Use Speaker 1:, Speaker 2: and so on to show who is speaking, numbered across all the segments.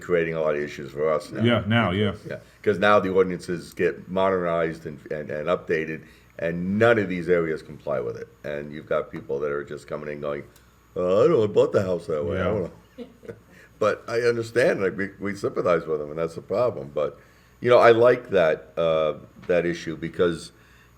Speaker 1: creating a lot of issues for us now.
Speaker 2: Yeah, now, yeah.
Speaker 1: Yeah, because now the ordinances get modernized and, and, and updated, and none of these areas comply with it. And you've got people that are just coming in going, "Uh, I don't bought the house that way. I don't know. but I understand, like, we, we sympathize with them, and that's the problem. But, you know, I like that, uh, that issue because,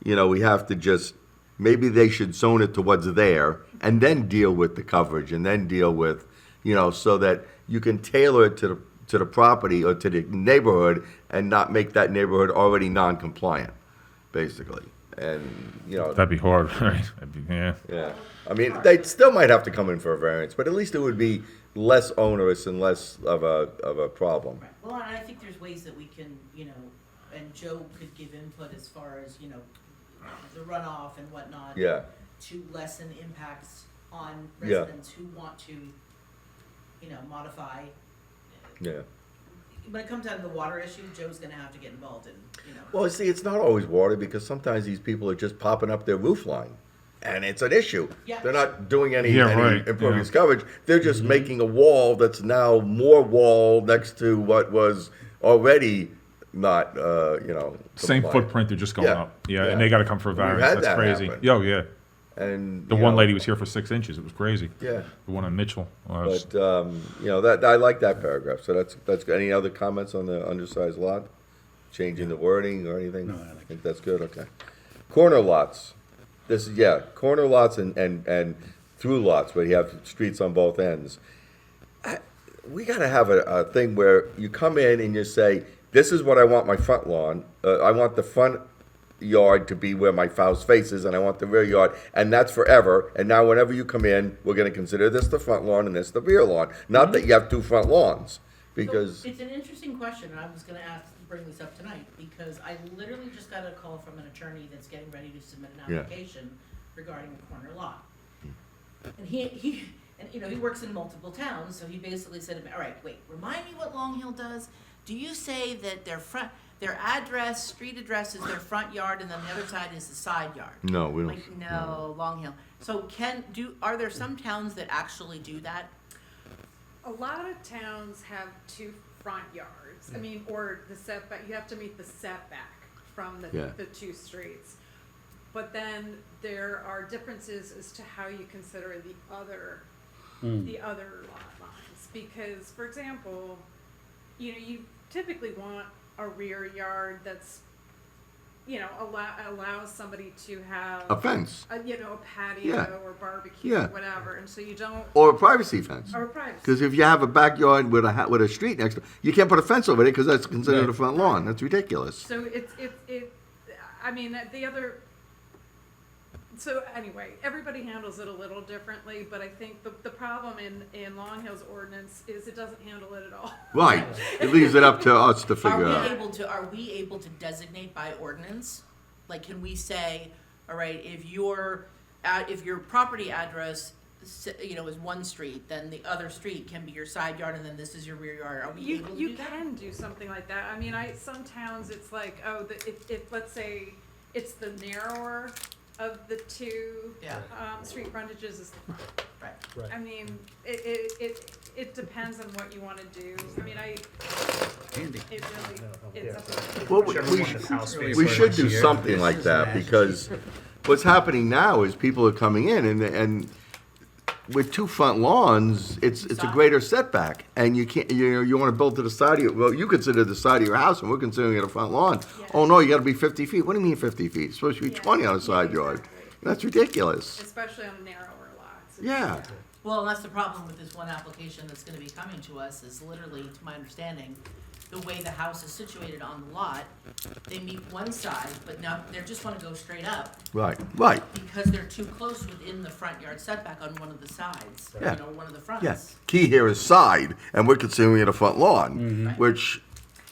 Speaker 1: you know, we have to just, maybe they should zone it to what's there and then deal with the coverage and then deal with, you know, so that you can tailor it to the, to the property or to the neighborhood and not make that neighborhood already non-compliant, basically. And, you know,
Speaker 2: That'd be hard, right? That'd be, yeah.
Speaker 1: yeah, I mean, they still might have to come in for a variance, but at least it would be less onerous and less of a, of a problem.
Speaker 3: Well, and I think there's ways that we can, you know, and Joe could give input as far as, you know, the runoff and whatnot.
Speaker 1: Yeah,
Speaker 3: To lessen impacts on
Speaker 1: Yeah.
Speaker 3: residents who want to, you know, modify.
Speaker 1: yeah.
Speaker 3: When it comes down to the water issue, Joe's gonna have to get involved in, you know.
Speaker 1: Well, see, it's not always water because sometimes these people are just popping up their roof line. And it's an issue.
Speaker 3: Yeah.
Speaker 1: They're not doing any,
Speaker 2: Yeah,
Speaker 1: any
Speaker 2: right,
Speaker 1: impervious
Speaker 2: yeah. Mm-hmm.
Speaker 1: coverage. They're just making a wall that's now more wall next to what was already not, uh, you know,
Speaker 2: Same
Speaker 1: compliant.
Speaker 2: footprint, they're just going
Speaker 1: Yeah,
Speaker 2: up. Yeah,
Speaker 1: yeah.
Speaker 2: and they got to come for a
Speaker 1: We've
Speaker 2: variance.
Speaker 1: had
Speaker 2: That's
Speaker 1: that
Speaker 2: crazy.
Speaker 1: happen.
Speaker 2: Yo, yeah.
Speaker 1: And
Speaker 2: The
Speaker 1: you
Speaker 2: one
Speaker 1: know,
Speaker 2: lady was here for six inches. It was crazy.
Speaker 1: Yeah.
Speaker 2: The one on Mitchell. Uh,
Speaker 1: But um, you know that I like that paragraph. So that's that's good. Any other comments on the undersized lot? Changing the wording or anything?
Speaker 4: No, I like
Speaker 1: think that's good. Okay. Corner lots. This is yeah, corner lots and and and through lots where you have streets on both ends. I- We gotta have a, a thing where you come in and you say, "This is what I want my front lawn. Uh, I want the front yard to be where my house faces, and I want the rear yard, and that's forever. And now, whenever you come in, we're going to consider this the front lawn and this the rear lawn. Not that you have two front lawns,
Speaker 3: So,
Speaker 1: because
Speaker 3: It's an interesting question, and I was gonna ask, bring this up tonight, because I literally just got a call from an attorney that's getting ready to submit an
Speaker 1: Yeah.
Speaker 3: application regarding a corner lot.
Speaker 1: Hmm.
Speaker 3: And he, he, and you know, he works in multiple towns, so he basically said to me, all right, wait, remind me what Long Hill does? Do you say that their front, their address, street address is their front yard, and then the other side is the side yard?
Speaker 1: no, we don't. Mm.
Speaker 3: Like, no, Long Hill. So can, do, are there some towns that actually do that?
Speaker 5: A lot of towns have two front yards, I mean, or the setback, you have to meet the setback from
Speaker 1: Yeah.
Speaker 5: the, the two streets. But then there are differences as to how you consider the other,
Speaker 1: Hmm.
Speaker 5: the other lot lines. Because, for example, you know, you typically want a rear yard that's, you know, allow, allows somebody to have,
Speaker 1: A fence
Speaker 5: a, you know, a patio or barbecue,
Speaker 1: Yeah.
Speaker 5: or whatever, and so you don't,
Speaker 1: or a privacy fence.
Speaker 5: or a privacy.
Speaker 1: Because if you have a backyard with a ha- with a street next to, you can't put a fence over it because that's considered a front lawn. That's ridiculous.
Speaker 5: So it's, it's, it, I mean, the other, so anyway, everybody handles it a little differently, but I think the, the problem in, in Long Hill's ordinance is it doesn't handle it at all.
Speaker 1: Right. It leaves it up to us to
Speaker 3: Are
Speaker 1: figure
Speaker 3: we
Speaker 1: out.
Speaker 3: able to, are we able to designate by ordinance? Like, can we say, all right, if your, ad- if your property address, s- you know, is one street, then the other street can be your side yard, and then this is your rear yard, are we
Speaker 5: You,
Speaker 3: able to
Speaker 5: you
Speaker 3: do that?
Speaker 5: can do something like that. I mean, I, some towns, it's like, oh, the, if, if, let's say, it's the narrower of the two,
Speaker 3: Yeah.
Speaker 5: um, street frontages is the front.
Speaker 3: Right.
Speaker 5: I mean, it, it, it, it depends on what you wanna do. I mean, I,
Speaker 6: Andy.
Speaker 5: it really, it's up to
Speaker 1: Well, we, we should- We should do something like that because what's happening now is people are coming in and, and with two front lawns, it's, it's a greater setback. And you can't, you know, you wanna build to the side of your, well, you consider the side of your house and we're considering it a front lawn. Oh, no, you gotta be fifty feet. What do you mean fifty feet? It's supposed to be
Speaker 5: Yeah.
Speaker 1: twenty on a side
Speaker 5: Yeah,
Speaker 1: yard.
Speaker 5: exactly.
Speaker 1: That's ridiculous.
Speaker 5: especially on narrower lots. It's-
Speaker 1: Yeah.
Speaker 3: Well, and that's the problem with this one application that's gonna be coming to us, is literally, to my understanding, the way the house is situated on the lot, they meet one side, but now, they just wanna go straight up,
Speaker 1: Right, right.
Speaker 3: because they're too close within the front yard setback on one of the sides, you
Speaker 1: Yeah.
Speaker 3: know, one of the fronts.
Speaker 1: Yes. Key here is side and we're considering it a front lawn, which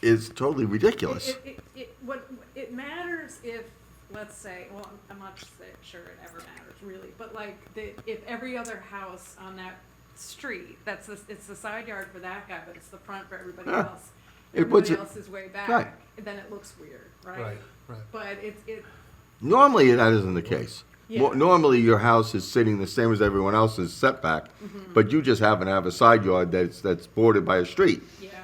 Speaker 1: is totally ridiculous.
Speaker 5: Mm-hmm. It, it, it, what, it matters if, let's say, well, I'm- I'm not s- sure it ever matters really, but like, the, if every other house on that street, that's the, it's the side yard for that guy, but it's the front for everybody
Speaker 1: Yeah.
Speaker 5: else.
Speaker 1: It was
Speaker 5: Everybody
Speaker 1: a-
Speaker 5: else is way
Speaker 1: Right.
Speaker 5: back, then it looks weird, right?
Speaker 6: Right, right.
Speaker 5: But it's, it,
Speaker 1: Normally, that isn't the case. Mo-
Speaker 5: Yeah.
Speaker 1: Normally, your house is sitting the same
Speaker 5: Mm-hmm.
Speaker 1: as everyone else's setback, but you just happen to have a side yard that's, that's bordered by a street.
Speaker 5: yeah.